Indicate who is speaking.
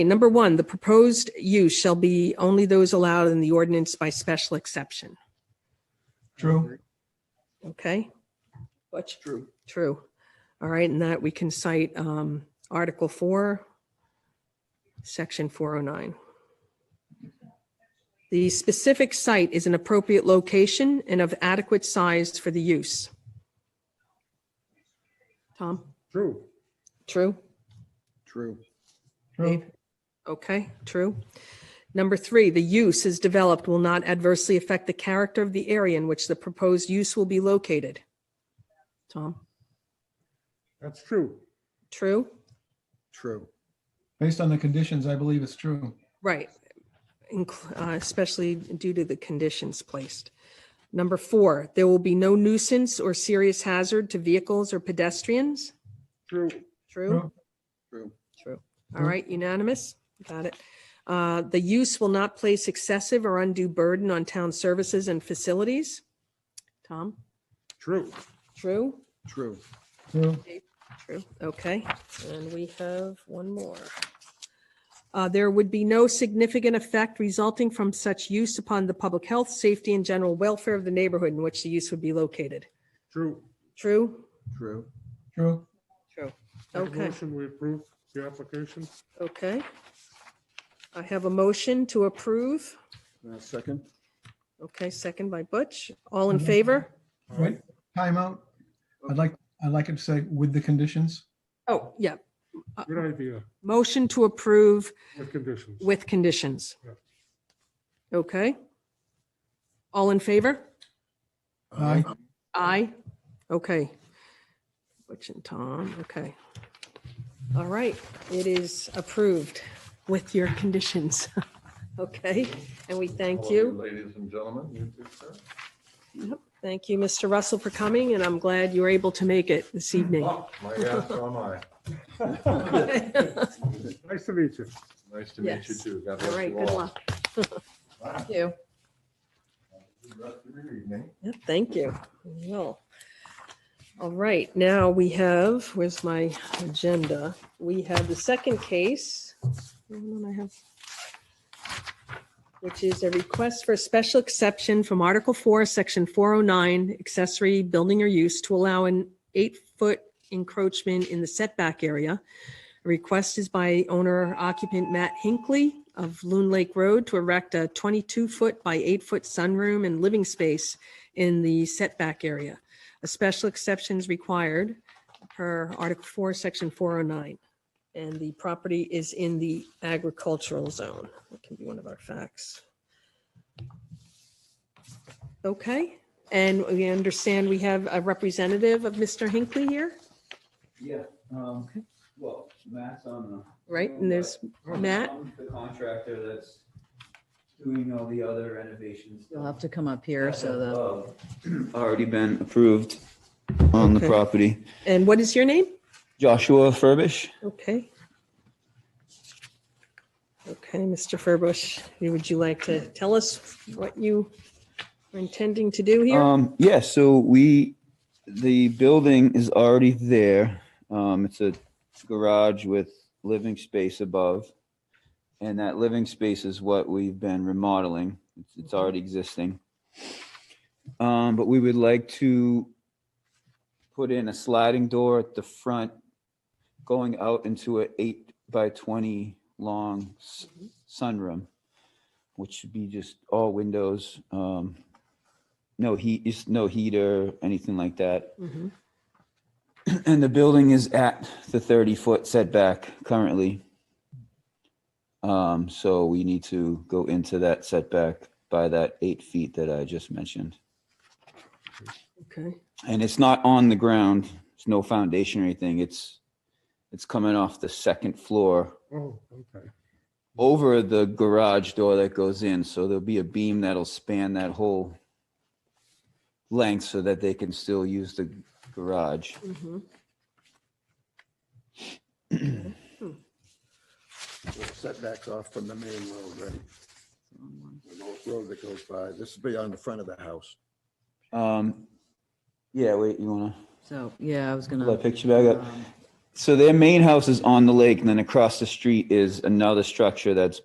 Speaker 1: Number one, the proposed use shall be only those allowed in the ordinance by special exception.
Speaker 2: True.
Speaker 1: Okay? What's
Speaker 2: True.
Speaker 1: true? All right, and that we can cite um, Article 4, Section 409. The specific site is an appropriate location and of adequate size for the use. Tom?
Speaker 3: True.
Speaker 1: True?
Speaker 3: True.
Speaker 2: True.
Speaker 1: Okay, true. Number three, the use is developed will not adversely affect the character of the area in which the proposed use will be located. Tom,
Speaker 3: That's true.
Speaker 1: true?
Speaker 3: True.
Speaker 2: Based on the conditions, I believe it's true.
Speaker 1: Right. Inc- uh, Especially due to the conditions placed. Number four, there will be no nuisance or serious hazard to vehicles or pedestrians.
Speaker 3: True.
Speaker 1: True?
Speaker 3: True.
Speaker 1: All right, unanimous? Got it. Uh, The use will not place excessive or undue burden on town services and facilities. Tom?
Speaker 3: True.
Speaker 1: True?
Speaker 3: True.
Speaker 2: True.
Speaker 1: True. Okay, and we have one more. Uh, There would be no significant effect resulting from such use upon the public health, safety, and general welfare of the neighborhood in which the use would be located.
Speaker 3: True.
Speaker 1: True?
Speaker 3: True.
Speaker 2: True.
Speaker 1: True. Mm-hmm.
Speaker 4: Make a
Speaker 1: Okay.
Speaker 4: Motion, we approve the application.
Speaker 1: Okay. I have a motion to approve.
Speaker 3: Uh, Second.
Speaker 1: Okay, second by Butch. All in favor?
Speaker 2: Wait, timeout. I'd like, I'd like it to say with the conditions.
Speaker 1: Oh, yeah.
Speaker 4: Good idea,
Speaker 1: Motion to approve
Speaker 4: with conditions.
Speaker 1: with conditions.
Speaker 4: Yeah.
Speaker 1: Okay. All in favor?
Speaker 2: Aye.
Speaker 1: Aye. Okay. Butch and Tom, okay. All right, it is approved with your conditions. Okay, and we thank you.
Speaker 5: Ladies and gentlemen, you do, sir.
Speaker 1: Thank you, Mr. Russell, for coming, and I'm glad you were able to make it this evening.
Speaker 5: Oh, My God, so am I.
Speaker 1: All
Speaker 4: Nice to meet you.
Speaker 5: Nice to meet you
Speaker 1: Yes.
Speaker 5: too. God bless
Speaker 1: right,
Speaker 5: you
Speaker 1: good
Speaker 5: all.
Speaker 1: luck.
Speaker 5: Have
Speaker 1: Thank you.
Speaker 5: a good rest of your evening.
Speaker 1: Yep, Thank you. Well, all right, now we have, where's my agenda? We have the second case. Hold on, I have- Which is a request for a special exception from Article 4, Section 409, accessory building or use to allow an eight-foot encroachment in the setback area. The Request is by owner occupant Matt Hinckley of Loon Lake Road to erect a 22-foot by 8-foot sunroom and living space in the setback area. A special exception is required per Article 4, Section 409. And the property is in the agricultural zone. That can be one of our facts. Okay, and we understand we have a representative of Mr. Hinckley here,
Speaker 6: Yeah, um,
Speaker 1: Okay.
Speaker 6: well, Matt's on the.
Speaker 1: right? And there's Matt.
Speaker 6: I'm The contractor that's doing all the other renovations.
Speaker 7: You'll have to come up here so the,
Speaker 6: the. Already been approved on the
Speaker 1: Okay.
Speaker 6: property.
Speaker 1: And what is your name?
Speaker 6: Joshua Furbish?
Speaker 1: Okay. Okay, Mr. Furbush, would you like to tell us what you are intending to do here?
Speaker 6: Um, yeah, so we, the building is already there. Um, it's a garage with living space above. And that living space is what we've been remodeling. It's, it's already existing. Um, but we would like to put in a sliding door at the front, going out into a eight by twenty long s- sunroom, which should be just all windows. Um, no heat, just no heater, anything like that.
Speaker 1: Mhm.
Speaker 6: And the building is at the thirty foot setback currently. Um, so we need to go into that setback by that eight feet that I just mentioned.
Speaker 1: Okay,
Speaker 6: And it's not on the ground. It's no foundation or anything. It's, it's coming off the second floor
Speaker 4: Oh, okay.
Speaker 6: over the garage door that goes in. So there'll be a beam that'll span that whole length so that they can still use the garage.
Speaker 1: mhm.
Speaker 5: Setbacks off from the main road, right? The old road that goes by. This will be on the front of the house.
Speaker 6: Um, yeah, wait, you wanna
Speaker 7: so, yeah, I was
Speaker 6: pull that
Speaker 7: gonna.
Speaker 6: picture back up?
Speaker 7: um,
Speaker 6: so their main house is on the lake and then across the street is another structure that's